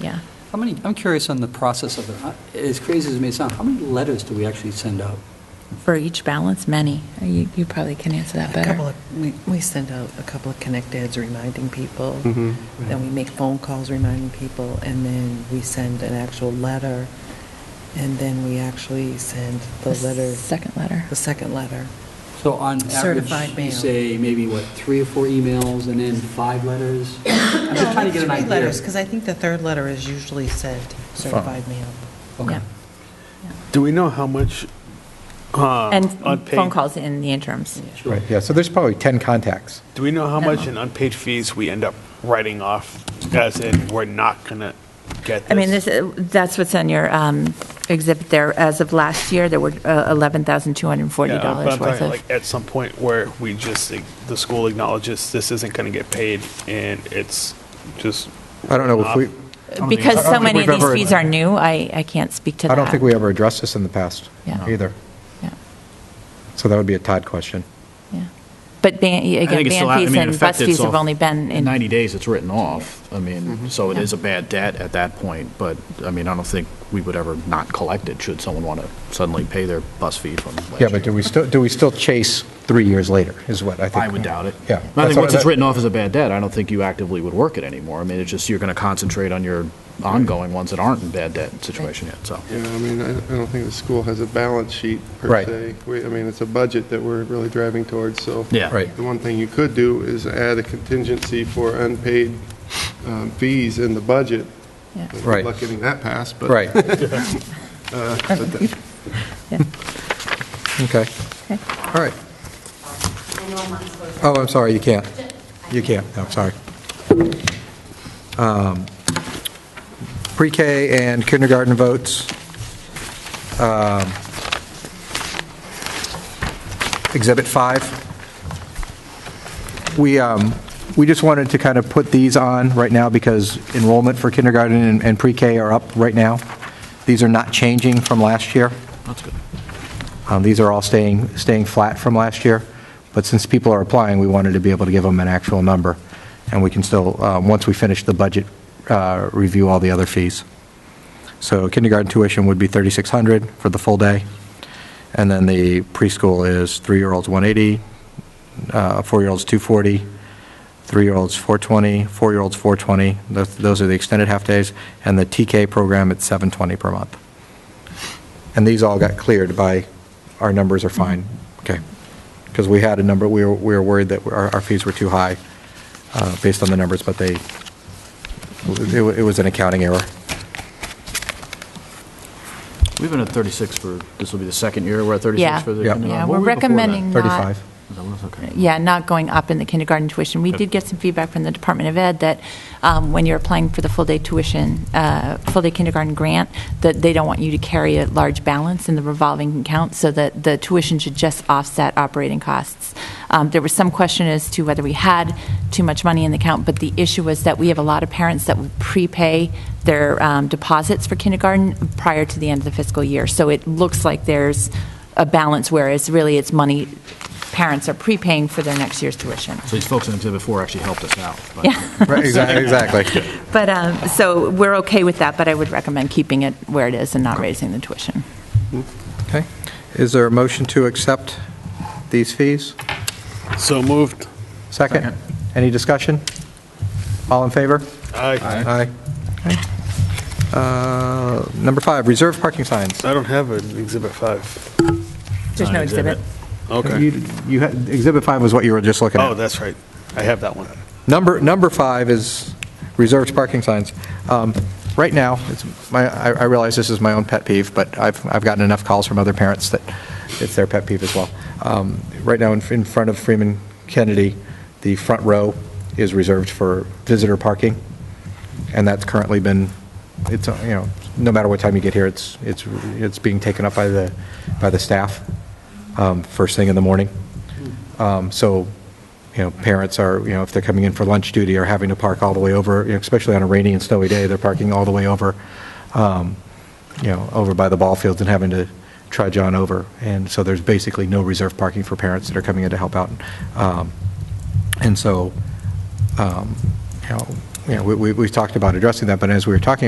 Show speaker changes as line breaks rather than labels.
yeah.
How many, I'm curious on the process of it. Uh, As crazy as it may sound, how many letters do we actually send out?
For each balance, many. You, you probably can answer that
A couple
better.
of, we, we send out a couple of connect ads reminding people.
Mhm.
Then we make phone calls reminding people, and then we send an actual letter, and then we actually send the letter,
Second letter.
the second letter.
So on average,
Certified
you
mail.
say maybe, what, three or four emails and then five letters? I'm just trying to get an idea.
Three letters, because I think the third letter is usually sent certified mail.
Okay.
Yeah.
Do we know how much? uh,
And
unpaid-
phone calls in the interims.
Sure.
Right, yeah, so there's probably 10 contacts.
Do we know how
No.
much in unpaid fees we end up writing off, as in, we're not going to get this?
I mean, this, uh, that's what's on your um, exhibit there. As of last year, there were uh,
Yeah, but I'm
$11,240 worth
talking,
of.
like, At some point where we just, like, the school acknowledges this isn't going to get paid, and it's just.
I don't know if we,
Because
I
so
don't think
many of
we've
these
ever-
fees are new, I, I can't speak to
I
that.
don't think we ever addressed this in the past
Yeah.
either.
Yeah,
So that would be a Todd question.
yeah. But ban,
I
again,
think it's still
band
out- I
fees
mean, in
and
effect,
bus
it's
fees have
off-
only been in. Mm-hmm.
90 days, it's written off. I mean, so it
Yeah.
is a bad debt at that point, but, I mean, I don't think we would ever not collect it should someone want to suddenly pay their bus fee from last
Yeah, but do
year.
we still, do we still chase three years later, is what I think?
I would doubt it.
Yeah.
I
That's
think
what-
once it's
that-
written off as a bad debt, I don't think you actively would work it anymore. I mean, it's just, you're going to concentrate on your ongoing ones that aren't in bad debt situation yet, so.
Yeah, I mean, I I don't think the school has a balance sheet per
Right.
se. We- I mean, it's a budget that we're really driving towards, so.
Yeah.
Right.
The one thing you could do is add a contingency for unpaid um, fees in the budget.
Yeah.
Good
Right.
luck getting that passed, but.
Right,
Yeah.
okay,
Okay.
all right. Oh, I'm sorry, you can't. You can't, no, sorry. Um, Pre-K and kindergarten votes. Um, Exhibit 5. We, um, we just wanted to kind of put these on right now because enrollment for kindergarten and- and pre-K are up right now. These are not changing from last year.
That's good.
Um, These are all staying, staying flat from last year, but since people are applying, we wanted to be able to give them an actual number, and we can still, um, once we finish the budget, uh, review all the other fees. So kindergarten tuition would be 3,600 for the full day, and then the preschool is three-year-olds 180, uh, four-year-olds 240, three-year-olds 420, four-year-olds 420, Those- those are the extended half-days, and the TK program at 720 per month. And these all got cleared by, our numbers are fine, okay? Because we had a number, we were, we were worried that our, our fees were too high uh, based on the numbers, but they, it wa- it was an accounting error.
We've been at 36 for, this will be the second year we're at 36
Yeah,
for the.
Yeah.
kindergarten.
yeah, we're
What were we before that?
recommending not.
35.
Is that what it was? Okay.
Yeah, not going up in the kindergarten tuition. We
Okay.
did get some feedback from the Department of Ed that um, when you're applying for the full-day tuition, uh, full-day kindergarten grant, that they don't want you to carry a large balance in the revolving account, so that the tuition should just offset operating costs. Um, There was some question as to whether we had too much money in the account, but the issue was that we have a lot of parents that will prepay their um, deposits for kindergarten prior to the end of the fiscal year. So it looks like there's a balance, whereas really it's money parents are prepaying for their next year's tuition.
So these folks in Exhibit 4 actually helped us out. but-
Right, exactly, exactly.
But, um, so we're okay with that, but I would recommend keeping it where it is and not raising the tuition.
Okay. Is there a motion to accept these fees?
So moved.
Second? Any discussion? All in favor?
I
Aye. Okay. Uh, Number five, reserve parking signs.
I don't have an Exhibit 5.
There's no exhibit.
Okay.
You- You, had- Exhibit five was what you were just looking at.
Oh, that's right. I have that one.
Number, number five is reserved parking signs. Um, Right now, it's my, I I realize this is my own pet peeve, but I've, I've gotten enough calls from other parents that it's their pet peeve as well. Um, Right now, in in front of Freeman Kennedy, the front row is reserved for visitor parking, and that's currently been, it's, uh, you know, no matter what time you get here, it's, it's, it's being taken up by the, by the staff um, first thing in the morning. Um, So, you know, parents are, you know, if they're coming in for lunch duty, are having to park all the way over, you know, especially on a rainy and snowy day, they're parking all the way over, um, you know, over by the ball fields and having to trudge on over. And so there's basically no reserve parking for parents that are coming in to help out. Um, And so, um, you know, you know, we- we- we've talked about addressing that, but as we were talking